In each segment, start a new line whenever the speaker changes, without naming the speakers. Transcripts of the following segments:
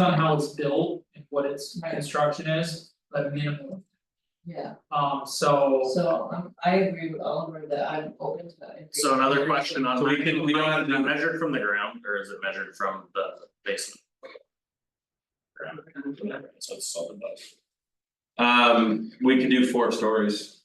on how it's built and what its
Right.
construction is, but minimal,
Yeah,
um, so.
so um I agree with Oliver that I'm open to that.
So another question on.
So we can- we don't have
Is it
to-
Measured from the ground or is it measured from the basement? So it's solid but.
Um, we could do four stories.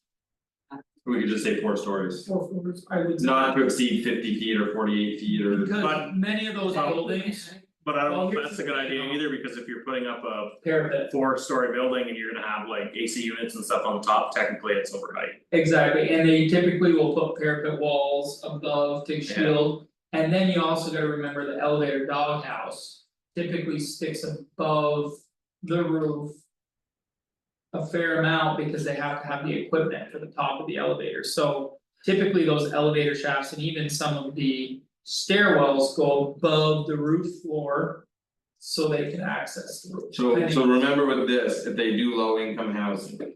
We could just say four stories,
Four floors, I would. say.
not to exceed fifty feet or forty eight feet or.
Because
But-
many of those buildings,
But I don't know
Well,
if
here's
that's
the
a good
thing,
idea
though.
either, because if you're putting up a
parapet,
four story building and you're gonna have like AC units and stuff on top, technically it's over height.
exactly, and they typically will put parapet walls above to shield. And then you also gotta remember the elevator doghouse typically sticks above the roof. A fair amount because they have to have the equipment for the top of the elevator, so typically those elevator shafts and even some of the. Stairwells go above the roof floor. So they can access the roof.
So
Depending-
so remember with this, if they do low income housing.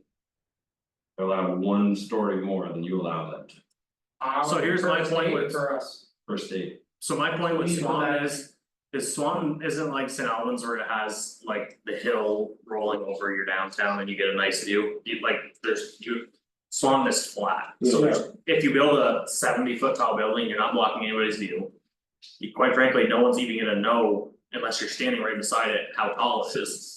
They're allowed one story more than you allow them to
So here's my point with-
For us.
per state.
So my point with
We want
Swan
that.
is, is Swan isn't like St. Albans where it has like the hill rolling over your downtown and you get a nice view, you like, there's you. Swan is flat, so there's- if you build a seventy foot tall building, you're not blocking anybody's view. You- Quite frankly, no one's even gonna know unless you're standing right beside it how tall it is.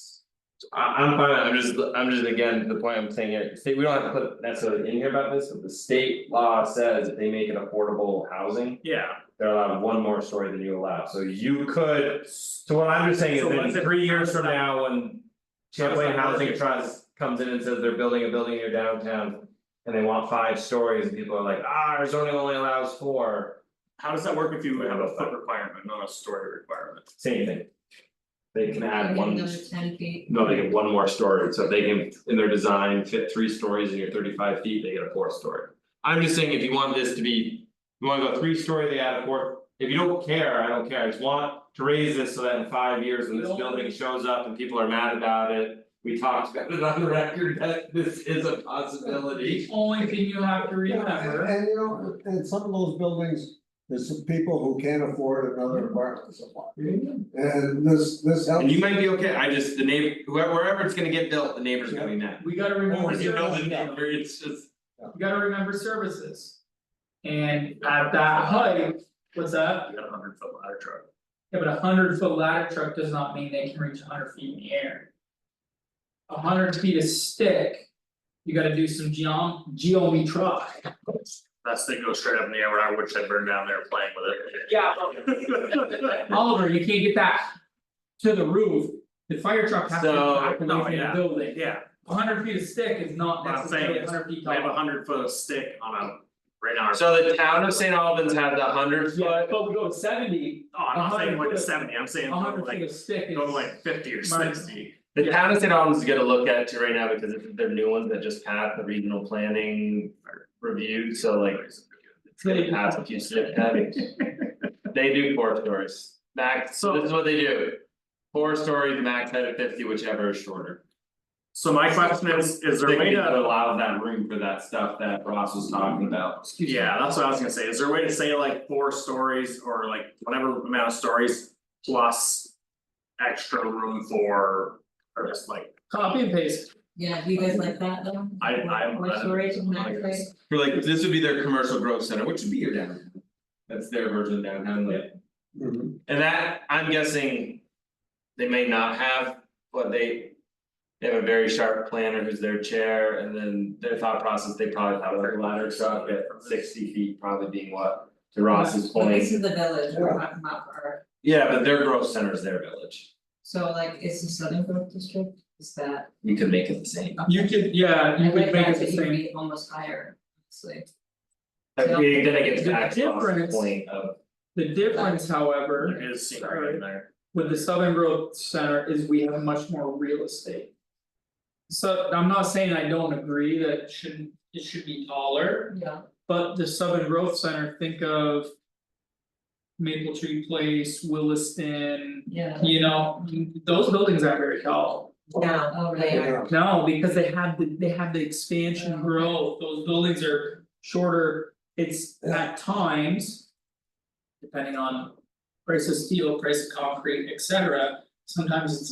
I I'm fine, I'm just, I'm just again, the point I'm saying here, state, we don't have to put necessarily in here about this, but the state law says if they make it affordable housing.
Yeah,
They're allowed one more story than you allow, so you could, so what I'm just saying
So
is
what's
in
it-
three years
how's
from
that-
now, when. Champlain Housing Trust comes in and says they're building a building near downtown. And they want five stories, and people are like, ah, our zoning only allows four,
how does that work if you have a foot requirement, not a story requirement?
same thing. They can add one,
Another ten feet,
no, they get one more story, so if they can, in their design, fit three stories in your thirty five feet, they get a fourth story. I'm just saying, if you want this to be, you wanna go three story, they add a fourth, if you don't care, I don't care, I just want to raise this so that in five years, when this
Don't-
building shows up and people are mad about it. We talked about it on the record, that this is a possibility.
The only thing you have to
Yeah,
remember,
And and, you know, and some of those buildings, there's some people who can't afford another apartment supply. And this this helps.
And you might be okay, I just, the neighbor, whoever, wherever it's gonna get built, the neighbor's gonna be mad.
we gotta remember
Or you build it
services,
in there, it's just.
you gotta remember services. And at that height, what's that?
You got a hundred foot ladder truck.
Yeah, but a hundred foot ladder truck does not mean they can reach hundred feet in the air. A hundred feet of stick, you gotta do some geom- geometry.
That's they go straight up in the air, where I wish I burned down there playing with it.
Yeah. Oliver, you can't get that to the roof, the fire truck has to
So,
back away
no,
from the
oh, yeah.
building.
Yeah,
A hundred feet of stick is not
What I'm
necessarily
saying
a
is,
hundred feet
We
tall.
have a hundred foot of stick on a, right now.
So the town of St. Albans had the hundred
Yeah,
foot,
but we go to seventy,
Oh, I'm not saying like
100 foot-
seventy, I'm saying
a hundred feet
like,
of stick is.
go to like fifty or
Mark.
sixty.
the town of St. Albans is gonna look at it right now because it's their new ones that just passed the regional planning. Review, so like, it's gonna pass a few stiff heavy. They do four stories, max, so this is what they do. Four stories, max height of fifty, whichever is shorter.
So my question is, is there a
They
way
need
to,
allow that room for that stuff that Ross was talking about.
Excuse me.
yeah, that's what I was gonna say, is there a way to say like four stories or like whatever amount of stories plus. Extra room for, or just like,
Copy and paste.
yeah, do you guys like that though?
I I am.
More storage in that space?
Or like, this would be their commercial growth center, which would be your downtown. That's their version of downtown, like.
Mhm.
And that, I'm guessing. They may not have, but they. They have a very sharp planner who's their chair and then their thought process, they probably have like a ladder truck at sixty feet probably being what? To Ross's
But this
point,
is the village, we're not not far.
yeah, but their growth center is their village,
so like, it's the Southern Grove District, is that?
we could make it the same.
You could, yeah, you could make it the
I like that, but
same.
you'd be almost higher, honestly.
Like, we- then it gets
The
back to Ross's
difference-
point of,
The difference, however,
There is scenery in there.
with the Southern Growth Center is we have much more real estate. So I'm not saying I don't agree that it shouldn't, it should be taller,
Yeah.
but the Southern Growth Center, think of. Maple Tree Place, Williston,
Yeah.
you know, those buildings aren't very tall.
Yeah. Oh, they are.
Yeah.
No, because they have the, they have the expansion growth, those buildings are shorter, it's at times. Depending on price of steel, price of concrete, et cetera, sometimes it's